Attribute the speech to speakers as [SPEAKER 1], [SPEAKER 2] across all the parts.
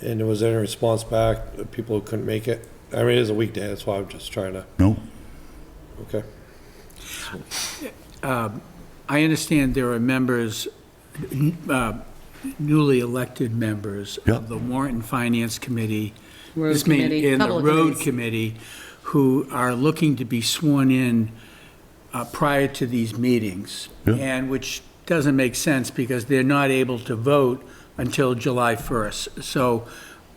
[SPEAKER 1] And was there any response back, uh, people who couldn't make it? I mean, it is a weekday, that's why I'm just trying to,
[SPEAKER 2] No?
[SPEAKER 1] okay.
[SPEAKER 3] I understand there are members, n- uh, newly elected members
[SPEAKER 2] Yeah.
[SPEAKER 3] of the Warrant and Finance Committee.
[SPEAKER 4] Road
[SPEAKER 3] this mean-
[SPEAKER 4] committee.
[SPEAKER 3] And the
[SPEAKER 4] Couple of
[SPEAKER 3] Road
[SPEAKER 4] committees.
[SPEAKER 3] Committee, who are looking to be sworn in uh, prior to these meetings.
[SPEAKER 2] Yeah.
[SPEAKER 3] And which doesn't make sense because they're not able to vote until July 1st. So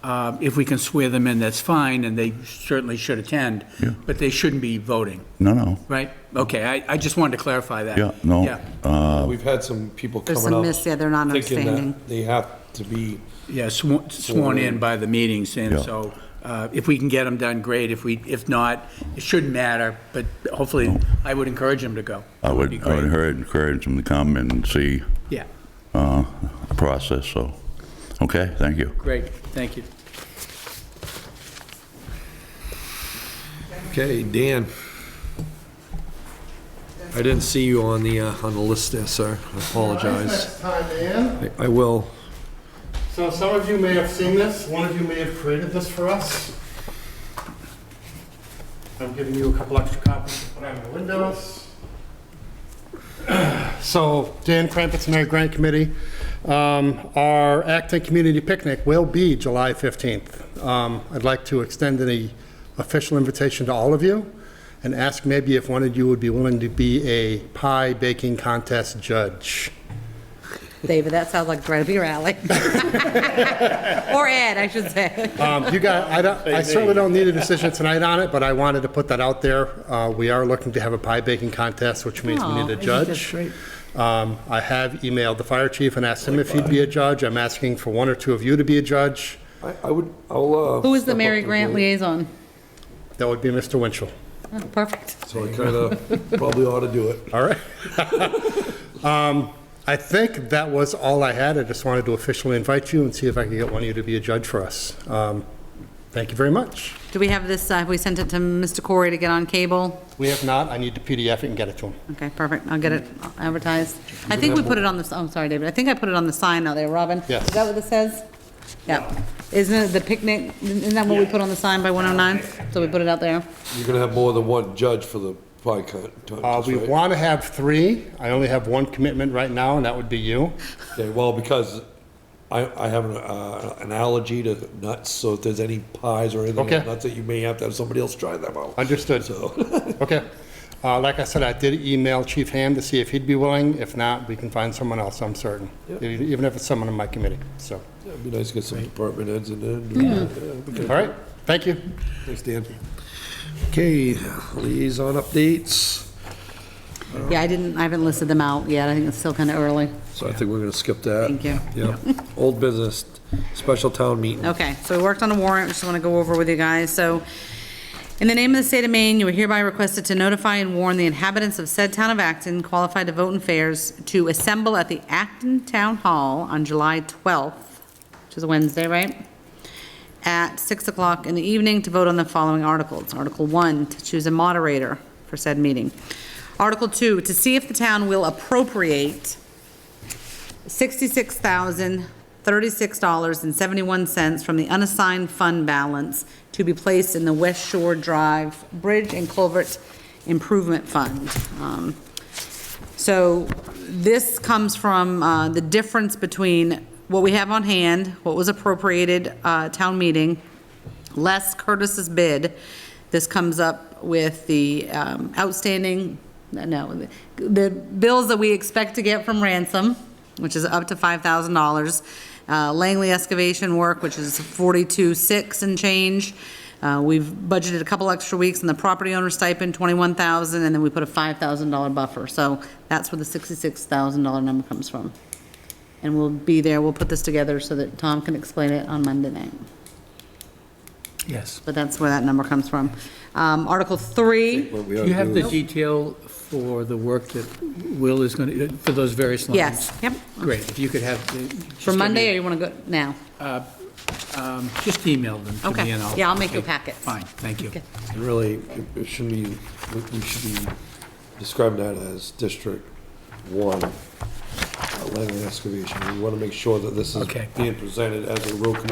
[SPEAKER 3] uh, if we can swear them in, that's fine, and they certainly should attend.
[SPEAKER 2] Yeah.
[SPEAKER 3] But they shouldn't be voting,
[SPEAKER 2] No, no.
[SPEAKER 3] right? Okay, I, I just wanted to clarify that.
[SPEAKER 2] Yeah, no.
[SPEAKER 3] Yeah.
[SPEAKER 1] We've had some people
[SPEAKER 4] There's
[SPEAKER 1] coming
[SPEAKER 4] some
[SPEAKER 1] up
[SPEAKER 4] miss- yeah, they're not
[SPEAKER 1] thinking that
[SPEAKER 4] understanding.
[SPEAKER 1] They have to be,
[SPEAKER 3] Yeah, sworn, sworn in by the meetings, and
[SPEAKER 2] Yeah.
[SPEAKER 3] so uh, if we can get them done, great. If we, if not, it shouldn't matter, but hopefully, I would encourage them to go.
[SPEAKER 2] I
[SPEAKER 3] be
[SPEAKER 2] would, I would
[SPEAKER 3] great.
[SPEAKER 2] encourage- encourage them to come and see
[SPEAKER 3] Yeah,
[SPEAKER 2] uh, the process, so, okay, thank you.
[SPEAKER 3] great, thank you.
[SPEAKER 1] okay, Dan. I didn't see you on the, uh, on the list there, sir. I apologize.
[SPEAKER 5] Next time, Ann.
[SPEAKER 1] I- I will.
[SPEAKER 5] So some of you may have seen this, one of you may have created this for us. I'm giving you a couple extra copies to put on the windows. So Dan Crampett's Mayor Grant Committee, um, our Acton Community Picnic will be July 15th. Um, I'd like to extend an official invitation to all of you and ask maybe if one of you would be willing to be a pie baking contest judge.
[SPEAKER 4] David, that sounds like right up your alley. Or Ed, I should say.
[SPEAKER 5] Um, You got, I don't, I certainly don't need a decision tonight on it, but I wanted to put that out there. Uh, We are looking to have a pie baking contest, which means we
[SPEAKER 4] Aw,
[SPEAKER 5] need
[SPEAKER 4] I
[SPEAKER 5] a
[SPEAKER 4] think that's
[SPEAKER 5] judge.
[SPEAKER 4] great.
[SPEAKER 5] Um, I have emailed the fire chief and asked him if he'd be a judge. I'm asking for one or two of you to be a judge.
[SPEAKER 1] I, I would, I'll, uh.
[SPEAKER 4] Who is the
[SPEAKER 1] step
[SPEAKER 4] Mary
[SPEAKER 1] up
[SPEAKER 4] Grant
[SPEAKER 1] and do it.
[SPEAKER 4] liaison?
[SPEAKER 5] That would be Mr. Winchell.
[SPEAKER 4] Oh, Perfect.
[SPEAKER 1] So I kinda probably ought to do it.
[SPEAKER 5] All right. Um, I think that was all I had. I just wanted to officially invite you and see if I could get one of you to be a judge for us. Um, Thank you very much.
[SPEAKER 4] Do we have this, uh, have we sent it to Mr. Corey to get on cable?
[SPEAKER 5] We have not. I need to PDF it and get it to him.
[SPEAKER 4] Okay, perfect, I'll get it advertised. I think we put it on the, I'm sorry, David, I think I put it on the sign out there, Robin?
[SPEAKER 5] Yes.
[SPEAKER 4] Is that what this says? Yeah. Isn't it the picnic, isn't that what we put on the sign by 109? So we put it out there?
[SPEAKER 1] You're gonna have more than one judge for the pie con-
[SPEAKER 5] Uh,
[SPEAKER 1] contest,
[SPEAKER 5] We
[SPEAKER 1] right?
[SPEAKER 5] want to have three. I only have one commitment right now, and that would be you.
[SPEAKER 1] Okay, well, because I, I have an, uh, an allergy to nuts, so if there's any pies or anything with
[SPEAKER 5] Okay.
[SPEAKER 1] nuts that you may have to have somebody else try them out.
[SPEAKER 5] Understood.
[SPEAKER 1] So,
[SPEAKER 5] Okay. Uh, Like I said, I did email Chief Ham to see if he'd be willing. If not, we can find someone else, I'm certain, E- even if it's someone in my committee, so.
[SPEAKER 1] it'd be nice to get some department heads in there. Yeah, it'd be good.
[SPEAKER 5] All right, thank you.
[SPEAKER 1] Thanks, Dan. Okay, liaison updates.
[SPEAKER 4] Yeah, I didn't, I haven't listed them out yet, I think it's still kind of early.
[SPEAKER 1] So I think we're gonna skip that.
[SPEAKER 4] Thank you.
[SPEAKER 1] Yeah. Old business, special town meeting.
[SPEAKER 4] Okay, so we worked on a warrant, just want to go over with you guys. So, in the name of the state of Maine, you are hereby requested to notify and warn the inhabitants of said town of Acton qualified to vote in fairs to assemble at the Acton Town Hall on July 12th, which is a Wednesday, right? At 6 o'clock in the evening to vote on the following articles. Article 1, to choose a moderator for said meeting. Article 2, to see if the town will appropriate $66,036.71 from the unassigned fund balance to be placed in the West Shore Drive Bridge and Culvert Improvement Fund. Um, So this comes from uh, the difference between what we have on hand, what was appropriated uh, town meeting, less Curtis's bid. This comes up with the um, outstanding, no, the bills that we expect to get from ransom, which is up to $5,000. uh, Langley excavation work, which is 42.6 and change. Uh, We've budgeted a couple extra weeks in the property owner stipend, 21,000, and then we put a $5,000 buffer. So that's where the $66,000 number comes from. And we'll be there, we'll put this together so that Tom can explain it on Monday night
[SPEAKER 3] Yes.
[SPEAKER 4] but that's where that number comes from. Um, Article three,
[SPEAKER 1] What we
[SPEAKER 3] Do
[SPEAKER 1] ought to
[SPEAKER 3] you have
[SPEAKER 1] do
[SPEAKER 3] the
[SPEAKER 1] is-
[SPEAKER 3] detail for the work that Will is going to, for those various lines?
[SPEAKER 4] yes, yep.
[SPEAKER 3] Great, if you could have. the- just
[SPEAKER 4] For
[SPEAKER 3] give
[SPEAKER 4] Monday, or
[SPEAKER 3] me-
[SPEAKER 4] you want to go now?
[SPEAKER 3] um, Just email them to
[SPEAKER 4] Okay.
[SPEAKER 3] me and I'll.
[SPEAKER 4] Yeah, I'll make you a
[SPEAKER 3] okay,
[SPEAKER 4] packet.
[SPEAKER 3] Fine, thank you.
[SPEAKER 1] And Really, it- it should be, we- we should be describing that as District One, uh, land and excavation. We want to make sure that this is
[SPEAKER 3] Okay.
[SPEAKER 1] being presented as a road commission